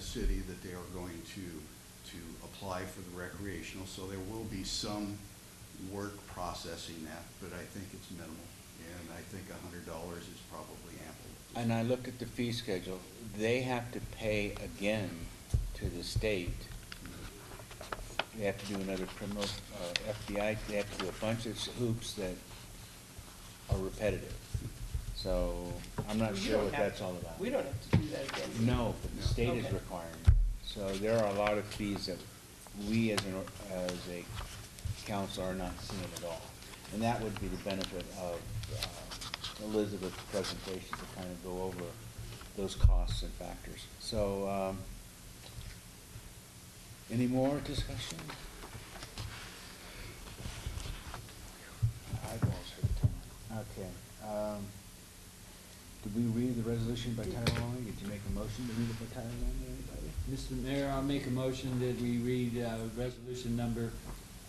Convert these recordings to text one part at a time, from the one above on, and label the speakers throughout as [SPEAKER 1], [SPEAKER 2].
[SPEAKER 1] city that they are going to, to apply for the recreational, so there will be some work processing that, but I think it's minimal, and I think a hundred dollars is probably ample.
[SPEAKER 2] And I look at the fee schedule, they have to pay again to the state. They have to do another criminal, uh, FBI, they have to do a bunch of hoops that are repetitive. So I'm not
[SPEAKER 3] Well, you
[SPEAKER 2] sure
[SPEAKER 3] don't
[SPEAKER 2] what
[SPEAKER 3] have-
[SPEAKER 2] that's all about.
[SPEAKER 3] We don't have to do that again.
[SPEAKER 2] No, but the state is
[SPEAKER 3] Okay.
[SPEAKER 2] requiring. it. So there are a lot of fees that we as an, or- as a council are not seeing at all. And that would be the benefit of uh, Elizabeth's presentation to kind of go over those costs and factors. So, um, any more discussion? Eyeballs hurt, Tom. Okay. um, Did we read the resolution by title only? Did you make a motion to read it by title only, anybody?
[SPEAKER 4] Mr. Mayor, I'll make a motion that we read uh, resolution number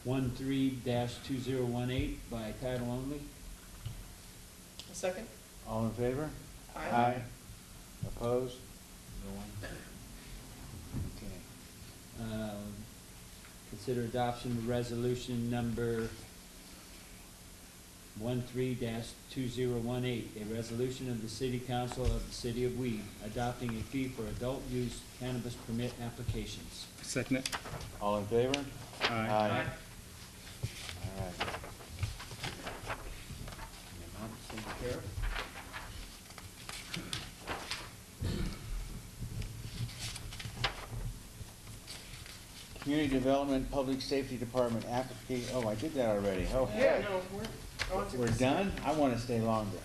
[SPEAKER 4] 13-2018 by title only.
[SPEAKER 3] A second?
[SPEAKER 2] All in favor?
[SPEAKER 3] Aye.
[SPEAKER 2] Opposed? No one? Okay.
[SPEAKER 4] Um, Consider adoption of resolution number 13-2018, a resolution of the City Council of the City of Weed adopting a fee for adult use cannabis permit applications.
[SPEAKER 5] Second it.
[SPEAKER 2] All in favor?
[SPEAKER 5] Aye.
[SPEAKER 2] All right. Community Development, Public Safety Department application, oh, I did that already, oh. heck.
[SPEAKER 3] Yeah, no, we're on to
[SPEAKER 2] We're done? I want to stay longer.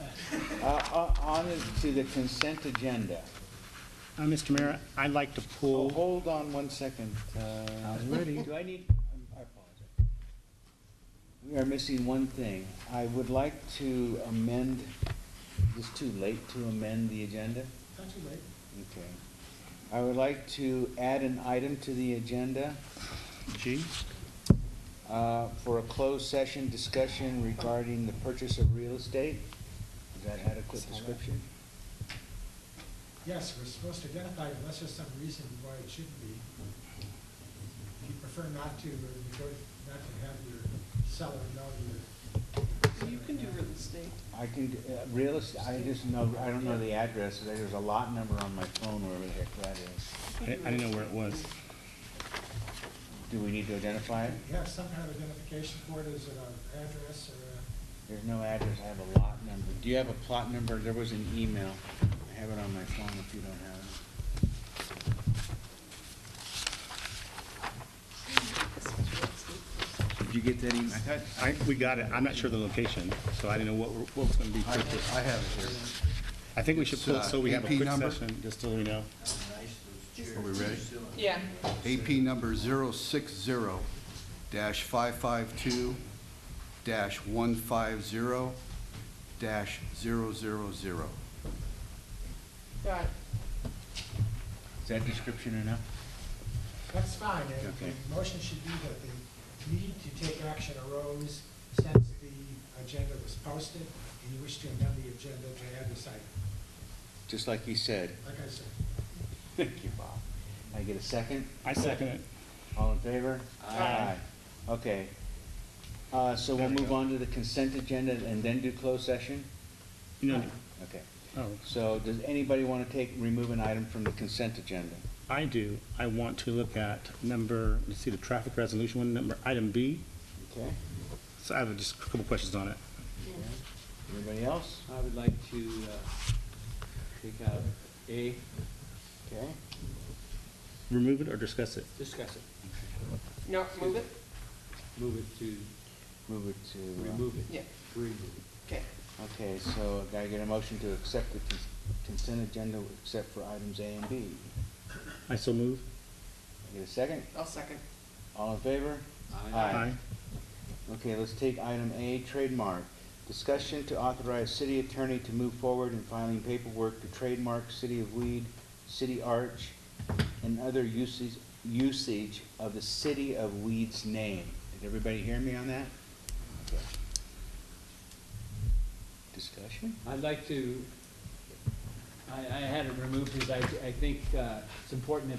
[SPEAKER 2] Uh, uh, On to the consent agenda.
[SPEAKER 5] Uh, Mr. Mayor, I'd like to
[SPEAKER 2] Oh,
[SPEAKER 5] pull,
[SPEAKER 2] hold on one second. uh,
[SPEAKER 5] I'm ready.
[SPEAKER 2] Do I need, I'm- I apologize. We are missing one thing. I would like to amend, is it too late to amend the agenda?
[SPEAKER 3] Not too late.
[SPEAKER 2] Okay. I would like to add an item to the agenda
[SPEAKER 5] G,
[SPEAKER 2] uh, for a closed session discussion regarding the purchase of real estate. Is that adequate description?
[SPEAKER 6] Yes, we're supposed to identify it unless there's some reason why it shouldn't be. If you prefer not to, or you go, not to have your seller know your.
[SPEAKER 3] You can do real estate.
[SPEAKER 2] I can, uh, real estate, I just know, I don't know the address, there's a lot number on my phone, wherever the heck that is.
[SPEAKER 5] I didn't I didn't know where it was.
[SPEAKER 2] Do we need to identify it?
[SPEAKER 6] You have some kind of identification for it, is it an address or a,
[SPEAKER 2] There's no address, I have a lot number. Do you have a plot number? There was an email. I have it on my phone if you don't have it. Did you get that email? I thought-
[SPEAKER 5] I, we got it. I'm not sure of the location, so I didn't know what, what was gonna be
[SPEAKER 1] I
[SPEAKER 5] purchased.
[SPEAKER 1] I have it here.
[SPEAKER 5] I think we should pull, it so we have a
[SPEAKER 1] It's, uh,
[SPEAKER 5] quick
[SPEAKER 1] AP number?
[SPEAKER 5] session, just so we know.
[SPEAKER 1] Are we ready?
[SPEAKER 3] Yeah.
[SPEAKER 1] AP number 060-552-150-000.
[SPEAKER 3] Got it.
[SPEAKER 2] Is that description enough?
[SPEAKER 6] that's fine, and
[SPEAKER 2] Okay.
[SPEAKER 6] the motion should be that the need to take action arose since the agenda was posted, and you wish to amend the agenda to add this item,
[SPEAKER 2] Just like you said.
[SPEAKER 6] like I said.
[SPEAKER 2] Thank you, Bob. I get a second?
[SPEAKER 5] I second it.
[SPEAKER 2] All in favor?
[SPEAKER 3] Aye.
[SPEAKER 2] Okay. Uh, so we'll move on to the consent agenda and then do closed session?
[SPEAKER 5] You know,
[SPEAKER 2] Okay.
[SPEAKER 5] oh,
[SPEAKER 2] So does anybody want to take, remove an item from the consent agenda?
[SPEAKER 5] I do. I want to look at number, let's see, the traffic resolution one, number, item B.
[SPEAKER 2] Okay.
[SPEAKER 5] So I have just a couple questions on it.
[SPEAKER 2] Anybody else?
[SPEAKER 4] I would like to uh, take out A,
[SPEAKER 2] Okay.
[SPEAKER 5] Remove it or discuss it?
[SPEAKER 4] discuss it,
[SPEAKER 3] No, move it?
[SPEAKER 4] move it to,
[SPEAKER 2] Move it to. uh,
[SPEAKER 4] remove it.
[SPEAKER 3] Yeah,
[SPEAKER 4] Remove
[SPEAKER 3] okay.
[SPEAKER 2] Okay, so can I get a motion to accept the cons- consent agenda except for items A and B?
[SPEAKER 5] I so move.
[SPEAKER 2] Get a second?
[SPEAKER 3] I'll second.
[SPEAKER 2] All in favor?
[SPEAKER 4] it.
[SPEAKER 2] Aye. Okay, let's take item A, trademark. Discussion to authorize city attorney to move forward in filing paperwork to trademark City of Weed, City Arch, and other uses, usage of the City of Weed's name. Did everybody hear me on that? Okay. Discussion?
[SPEAKER 4] I'd like to, I, I had it removed because I, I think uh, it's important that